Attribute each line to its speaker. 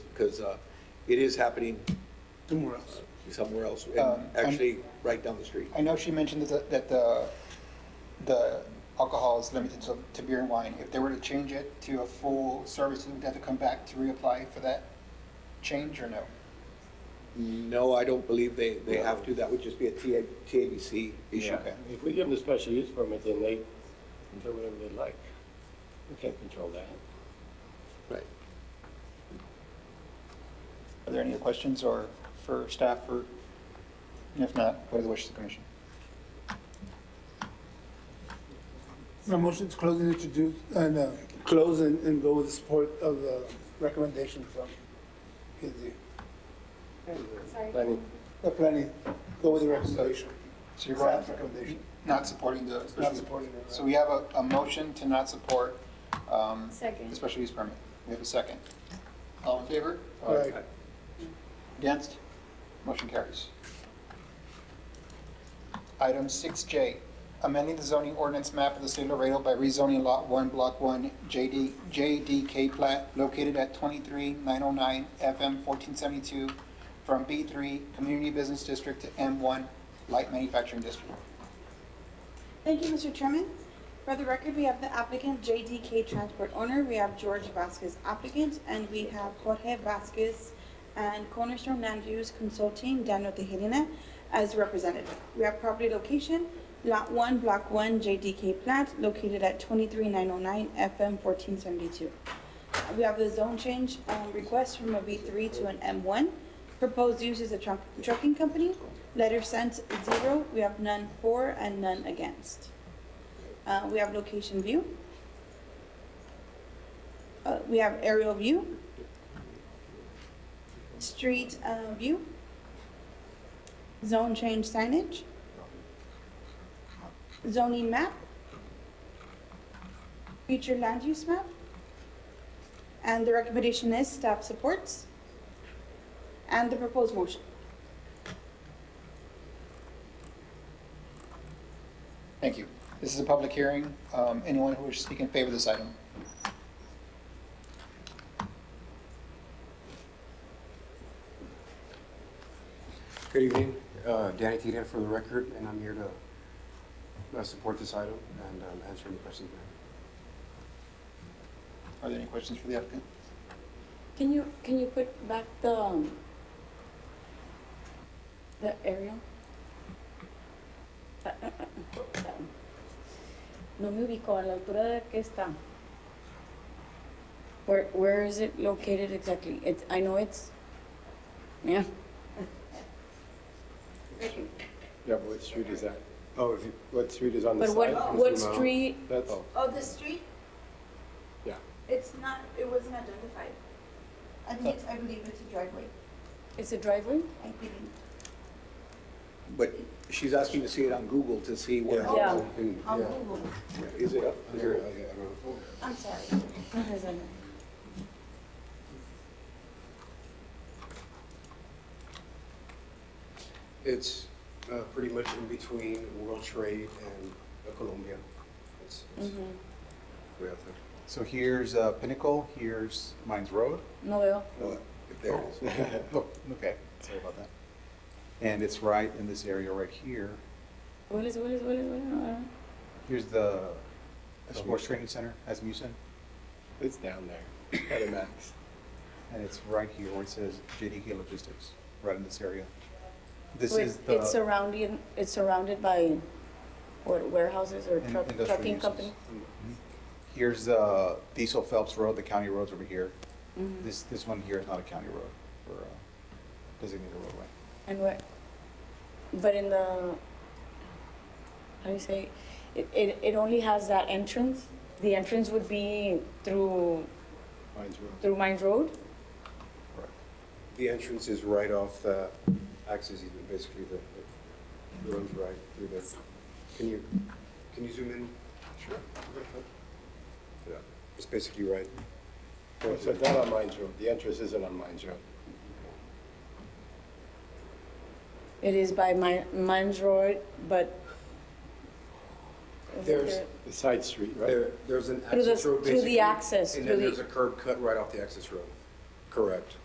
Speaker 1: because uh, it is happening Uh,
Speaker 2: somewhere else.
Speaker 1: somewhere else, and
Speaker 3: Um, I'm-
Speaker 1: actually right down the street.
Speaker 3: I know she mentioned that, the- that the, the alcohol is limited to, to beer and wine. If they were to change it to a full service, would they have to come back to reapply for that change or no?
Speaker 1: No, I don't believe they, they have to, that would just be a TA TABC issue.
Speaker 3: Okay.
Speaker 4: If we give them the special use permit, then they can do whatever they like. We can't control that.
Speaker 1: Right.
Speaker 3: Are there any other questions or for staff or, and if not, what are the wishes of the commission?
Speaker 2: My motion to close and introduce, and, uh, close and, and go with the support of the recommendation from PZ.
Speaker 4: Planning,
Speaker 2: The planning, go with the recommendation.
Speaker 3: So you're
Speaker 2: Staff's
Speaker 3: going-
Speaker 2: recommendation.
Speaker 3: Not supporting the.
Speaker 2: Not supporting it.
Speaker 3: So we have a, a motion to not support, um, the
Speaker 5: Second.
Speaker 3: special use permit. We have a second. All in favor?
Speaker 2: All right.
Speaker 3: Against? Motion carries. Item 6J, amending the zoning ordinance map of the city of Laredo by rezoning Lot 1, Block 1, JD, JDK plat located at 23909 FM 1472 from B3 Community Business District to M1 Light Manufacturing District.
Speaker 6: Thank you, Mr. Chairman. For the record, we have the applicant JDK Transport Owner, we have George Vasquez applicant, and we have Jorge Vasquez and Cornerstone Land Use Consulting, Daniel Tejerina, as representative. We have property location, Lot 1, Block 1, JDK plat, located at 23909 FM 1472. Uh, We have the zone change um, request from a B3 to an M1. Proposed use is a truck- trucking company. Letter sent, zero. We have none for and none against. Uh, We have location view. Uh, We have aerial view. Street uh, view. Zone change signage. Zoning map. Future land use map. And the recommendation is staff supports and the proposed motion.
Speaker 3: Thank you. This is a public hearing. Um, Anyone who wishes to speak in favor of this item?
Speaker 7: Good evening, Uh, Danny Tita for the record, and I'm here to uh, support this item and um, answer any questions. you have.
Speaker 3: Are there any questions for the applicant?
Speaker 5: Can you, can you put back the, um, the aerial? Ah, ah, ah, ah, that one. No me ubico, a la altura de que está. Where, where is it located exactly? It's, I know it's, yeah,
Speaker 4: yeah, but what street is that? Oh, if you- what street is on the
Speaker 5: but
Speaker 4: side?
Speaker 5: what,
Speaker 4: Can
Speaker 5: what
Speaker 4: zoom out.
Speaker 5: street,
Speaker 4: That's,
Speaker 6: Oh, the street?
Speaker 4: Yeah.
Speaker 6: It's not, it wasn't identified. I think it's, I believe it's a driveway,
Speaker 5: it's a driveway?
Speaker 6: I believe.
Speaker 1: But she's asking to see it on Google to see where,
Speaker 5: Yeah.
Speaker 7: And,
Speaker 6: On
Speaker 5: Um,
Speaker 7: yeah,
Speaker 6: Google,
Speaker 1: is it up?
Speaker 7: I
Speaker 1: Is
Speaker 7: don't-
Speaker 1: there-
Speaker 7: I don't know.
Speaker 6: I'm sorry.
Speaker 7: It's uh, pretty much in between World Trade and uh, Colombia. It's it's
Speaker 5: Mhm.
Speaker 7: way out there.
Speaker 8: So here's uh, Pinnacle, here's Mines Road.
Speaker 5: No veo.
Speaker 1: No, There it is.
Speaker 8: Oh, okay, sorry about that. And it's right in this area right here.
Speaker 5: Hueles, hueles, hueles, hueles, no, no.
Speaker 8: Here's the sports training center, Asmussen,
Speaker 4: it's down there, at a max.
Speaker 8: and it's right here where it says JDK Logistics, right in this area. This
Speaker 5: Wait,
Speaker 8: is
Speaker 5: It's
Speaker 8: the
Speaker 5: surrounding, it's surrounded by what warehouses or
Speaker 8: in-
Speaker 5: truck,
Speaker 8: industrial
Speaker 5: trucking
Speaker 8: uses.
Speaker 5: company?
Speaker 8: Mhm. Here's uh, Diesel Phelps Road, the county road's over here.
Speaker 5: Mhm.
Speaker 8: This, this one here is not a county road or a designated roadway.
Speaker 5: And where, but in the, how do you say, it, it, it only has that entrance? The entrance would be through,
Speaker 4: Mine's real.
Speaker 5: through Mines Road?
Speaker 7: The entrance is right off the uh, axis even, basically the, the- the road's right through there. Can you, can you zoom in? Sure. Yeah, it's basically right.
Speaker 4: No, So it's not on Mines Road, the entrance isn't on Mines Road.
Speaker 5: It is by Mi- Mines Road, but.
Speaker 7: There's-
Speaker 4: The side street, right?
Speaker 7: There, there's an
Speaker 5: Through the-
Speaker 7: access road
Speaker 5: through the
Speaker 7: basically.
Speaker 5: access,
Speaker 7: And
Speaker 5: through
Speaker 7: then
Speaker 5: the-
Speaker 7: there's a curb cut right off the access road. Correct.